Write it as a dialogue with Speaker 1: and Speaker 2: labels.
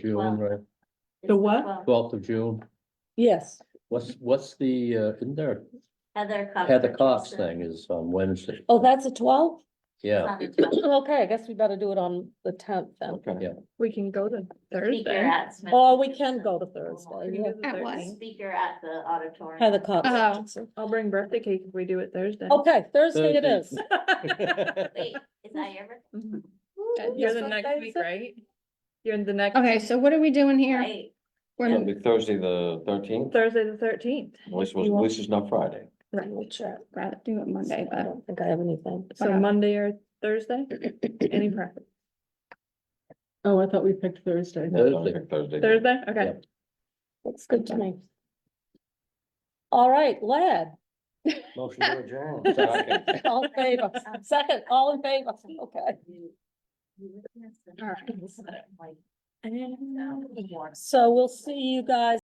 Speaker 1: June, right?
Speaker 2: The what?
Speaker 1: Twelfth of June.
Speaker 3: Yes,
Speaker 1: What's, what's the, uh, in there,
Speaker 2: Heather Cox.
Speaker 1: Heather Cox thing is on Wednesday.
Speaker 3: oh, that's a twelve?
Speaker 1: Yeah,
Speaker 2: Um,
Speaker 3: Okay, I guess we better do it on the tenth then,
Speaker 1: yeah.
Speaker 4: We can go to
Speaker 2: Speaker
Speaker 4: Thursday.
Speaker 2: at. Smith-
Speaker 3: or Oh, we can go to Thursday. yeah.
Speaker 4: At what?
Speaker 2: Speaker at the auditorium.
Speaker 3: Heather Cox.
Speaker 5: Uh-huh.
Speaker 4: I'll bring birthday cake if we do it Thursday.
Speaker 3: Okay, Thursday it
Speaker 1: Thursday.
Speaker 3: is.
Speaker 2: Wait, is that your birthday?
Speaker 4: Mhm.
Speaker 3: Ooh,
Speaker 4: You're the
Speaker 3: yes,
Speaker 4: next
Speaker 3: Thursday
Speaker 4: week,
Speaker 3: is it?
Speaker 4: right? You're in the next.
Speaker 6: Okay, so what are we doing here?
Speaker 2: Right.
Speaker 6: We're-
Speaker 7: It'll be Thursday, the thirteenth, at
Speaker 4: Thursday the thirteenth.
Speaker 7: least, it was- at least it's not Friday.
Speaker 6: right, we'll try- Rather do it Monday,
Speaker 3: I
Speaker 6: but
Speaker 3: don't think I have anything.
Speaker 4: So
Speaker 6: Whatever.
Speaker 4: Monday or Thursday, any preference?
Speaker 5: Oh, I thought we picked Thursday.
Speaker 6: Uh,
Speaker 7: Yeah, don't pick Thursday.
Speaker 4: Thursday, okay.
Speaker 1: Yeah.
Speaker 3: Looks good to me. All right, lad,
Speaker 7: Motion to adjourn. Second.
Speaker 3: all in favor, second, all in favor, okay.
Speaker 2: All right.
Speaker 3: So we'll see you guys.